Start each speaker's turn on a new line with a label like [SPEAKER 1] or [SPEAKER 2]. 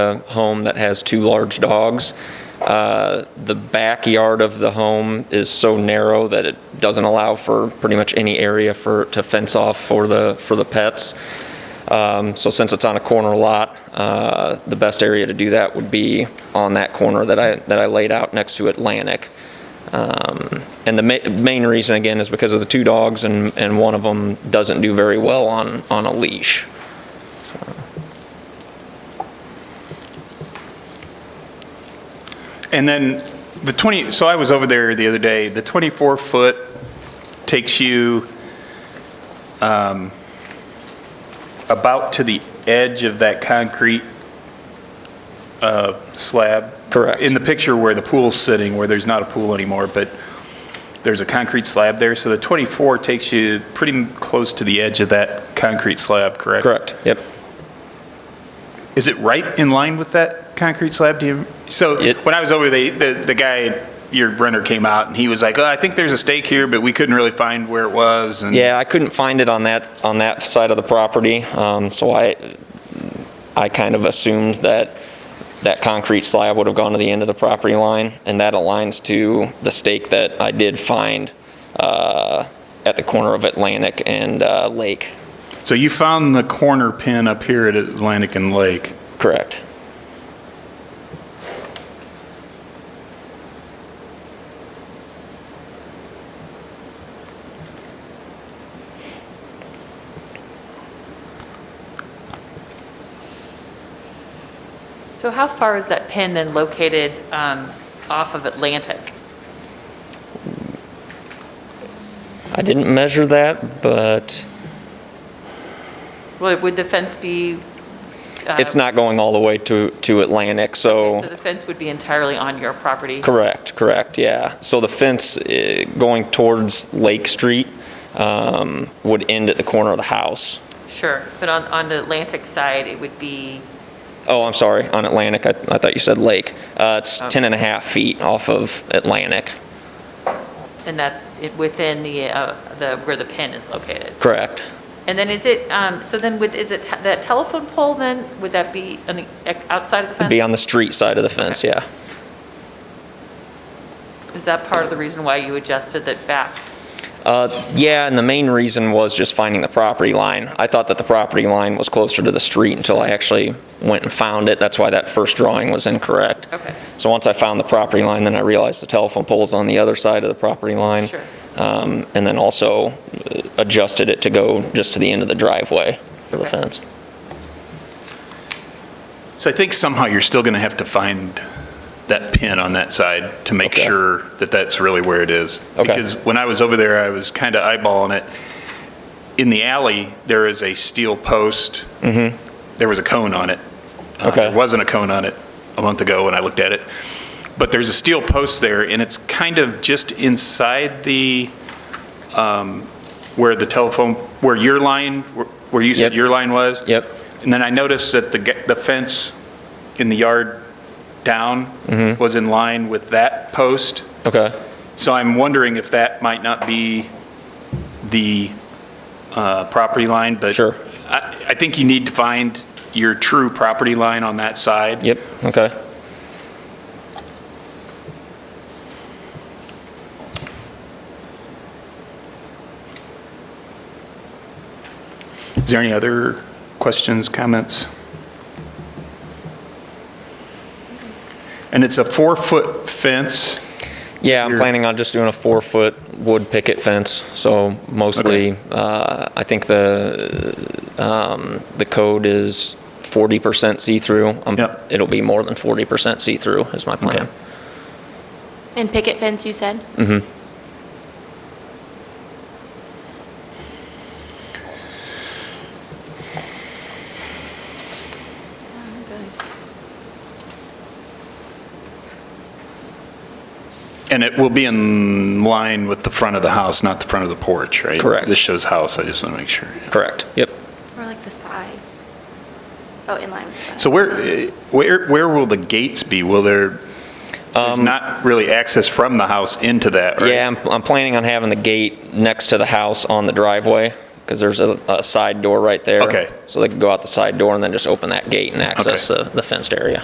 [SPEAKER 1] a home that has two large dogs. Uh, The backyard of the home is so narrow that it doesn't allow for pretty much any area for, to fence off for the, for the pets. Um, So since it's on a corner lot, uh, the best area to do that would be on that corner that I, that I laid out next to Atlantic. Um, And the ma- main reason, again, is because of the two dogs and, and one of them doesn't do very well on, on a leash.
[SPEAKER 2] And then the 20, so I was over there the other day, the 24-foot takes you um, about to the edge of that concrete uh, slab.
[SPEAKER 1] Correct.
[SPEAKER 2] In the picture where the pool's sitting, where there's not a pool anymore, but there's a concrete slab there. So the 24 takes you pretty m- close to the edge of that concrete slab, correct?
[SPEAKER 1] Correct, yep.
[SPEAKER 2] Is it right in line with that concrete slab? Do you, so
[SPEAKER 1] It-
[SPEAKER 2] when I was over, the, the, the guy, your renter came out and he was like, oh, I think there's a stake here, but we couldn't really find where it was. And
[SPEAKER 1] Yeah, I couldn't find it on that, on that side of the property, um, so I, I kind of assumed that that concrete slab would have gone to the end of the property line, and that aligns to the stake that I did find uh, at the corner of Atlantic and uh, Lake.
[SPEAKER 2] So you found the corner pin up here at Atlantic and Lake.
[SPEAKER 1] Correct.
[SPEAKER 3] So how far is that pin then located um, off of Atlantic?
[SPEAKER 1] I didn't measure that, but
[SPEAKER 3] Would would the fence be? uh,
[SPEAKER 1] it's not going all the way to, to Atlantic,
[SPEAKER 3] So
[SPEAKER 1] so,
[SPEAKER 3] the fence would be entirely on your property?
[SPEAKER 1] correct, correct, yeah. So the fence eh, going towards Lake Street um, would end at the corner of the house.
[SPEAKER 3] Sure, but on, on the Atlantic side, it would be,
[SPEAKER 1] Oh, I'm sorry, on Atlantic, I, I thought you said Lake. Uh, It's
[SPEAKER 3] Oh.
[SPEAKER 1] 10 and a half feet off of Atlantic,
[SPEAKER 3] and that's it- within the, uh, the, where the pin is located?
[SPEAKER 1] correct.
[SPEAKER 3] And then is it, um, so then would, is it te- that telephone pole then, would that be on the, outside of the fence?
[SPEAKER 1] Be on the street side of the fence, yeah.
[SPEAKER 3] Is that part of the reason why you adjusted it back?
[SPEAKER 1] Uh, Yeah, and the main reason was just finding the property line. I thought that the property line was closer to the street until I actually went and found it. That's why that first drawing was incorrect.
[SPEAKER 3] Okay.
[SPEAKER 1] So once I found the property line, then I realized the telephone pole's on the other side of the property line.
[SPEAKER 3] Sure.
[SPEAKER 1] Um, And then also uh, adjusted it to go just to the end of the driveway for the
[SPEAKER 3] Okay.
[SPEAKER 1] fence.
[SPEAKER 2] So I think somehow you're still going to have to find that pin on that side to make
[SPEAKER 1] Okay.
[SPEAKER 2] sure that that's really where it is.
[SPEAKER 1] Okay.
[SPEAKER 2] Because when I was over there, I was kind of eyeballing it. In the alley, there is a steel post. There was a cone on it. Uh,
[SPEAKER 1] Mm-hmm. Okay.
[SPEAKER 2] There wasn't a cone on it a month ago when I looked at it. But there's a steel post there, and it's kind of just inside the, um, where the telephone, where your line, where- where you
[SPEAKER 1] Yep.
[SPEAKER 2] said your line was.
[SPEAKER 1] Yep.
[SPEAKER 2] And then I noticed that the, ge- the fence in the yard down was in line with that post.
[SPEAKER 1] Okay.
[SPEAKER 2] So I'm wondering if that might not be the uh, property line, but.
[SPEAKER 1] Sure.
[SPEAKER 2] I, I think you need to find your true property line on that side.
[SPEAKER 1] Yep, okay.
[SPEAKER 2] Is there any other questions, comments? And it's a four-foot fence.
[SPEAKER 1] Yeah, I'm
[SPEAKER 2] Here.
[SPEAKER 1] planning on just doing a four-foot wood picket fence, so mostly, uh, I think the, um, the code is 40% see-through. Um,
[SPEAKER 2] Yep.
[SPEAKER 1] It'll be more than 40% see-through is my plan.
[SPEAKER 4] And picket fence, you said? Mm-hmm.
[SPEAKER 2] And it will be in line with the front of the house, not the front of the porch, right?
[SPEAKER 1] Correct.
[SPEAKER 2] This shows house, I just want to make sure.
[SPEAKER 1] Correct, yep.
[SPEAKER 4] Or like the side? Oh, in line with that.
[SPEAKER 2] So where, eh, where, where will the gates be? Will there, there's not really access from the house into that, right?
[SPEAKER 1] Yeah, I'm, I'm planning on having the gate next to the house on the driveway, because there's a, a side door right there.
[SPEAKER 2] Okay.
[SPEAKER 1] So they can go out the side door and then just open that gate and access
[SPEAKER 2] Okay.
[SPEAKER 1] the the fenced area.